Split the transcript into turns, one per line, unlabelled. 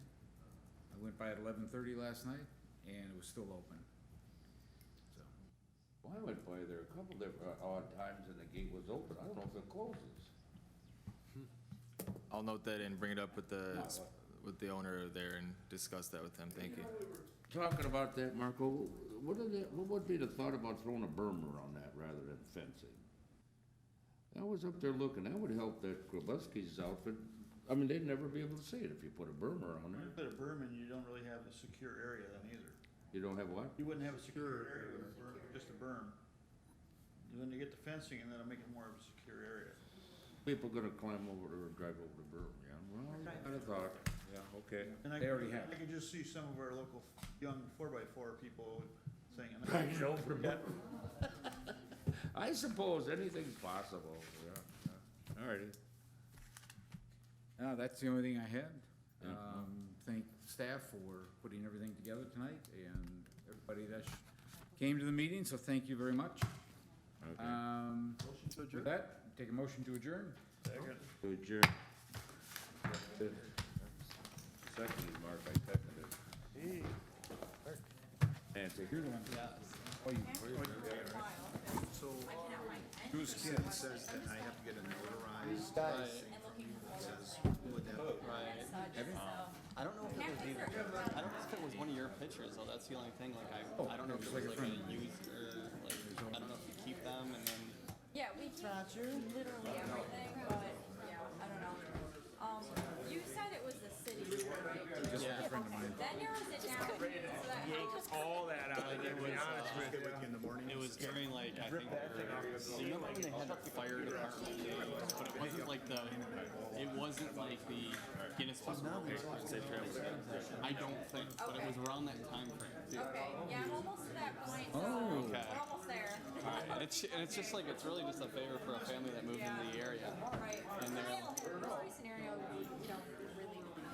by at eleven thirty last night, and it was still open. So,
Well, I went by there a couple different uh, odd times and the gate was open. I don't know if it closes.
I'll note that and bring it up with the,
No.
with the owner there and discuss that with him, thank you.
Talking about that, Marco, what are the, what would be the thought about throwing a berm around that rather than fencing? I was up there looking, that would help that Grabowski's outfit, I mean, they'd never be able to see it if you put a berm around
When
there.
you put a berm in, you don't really have a secure area then either.
You don't have what?
You wouldn't have a secure area with a berm, just a berm. Then you get the fencing and that'll make it more of a secure area.
People gonna climb over there and drive over the berm, yeah, well, I'd have thought,
yeah, okay,
And I-
they already have.
I can just see some of our local young four by four people saying.
Bang it over the
Yeah.
I suppose anything's possible, yeah, yeah, all righty.
Uh, that's the only thing I had. Um, thank staff for putting everything together tonight and everybody that sh- came to the meeting, so thank you very much.
Okay.
Um, with that, take a motion to adjourn.
Second.
To adjourn. Seconded, Mark, I seconded. Nancy. You're the one.
I don't know if it was either. I don't know if it was one of your pictures though. That's the only thing. Like I, I don't know if it was like a used or like I don't know if you keep them and then
Yeah, we do literally everything, but yeah, I don't know. Um, you said it was the city, right?
yeah.
That narrows it down. So that helps.
It was during like I think the- you remember when they had the fire department, but it wasn't like the it wasn't like the Guinness Book of World Records. that drove it. I don't think, but it was around that time frame.
Okay, yeah, I'm almost to that point, so
Oh.
we're almost there.
It's and it's just like it's really just a favor for a family that moved into the area.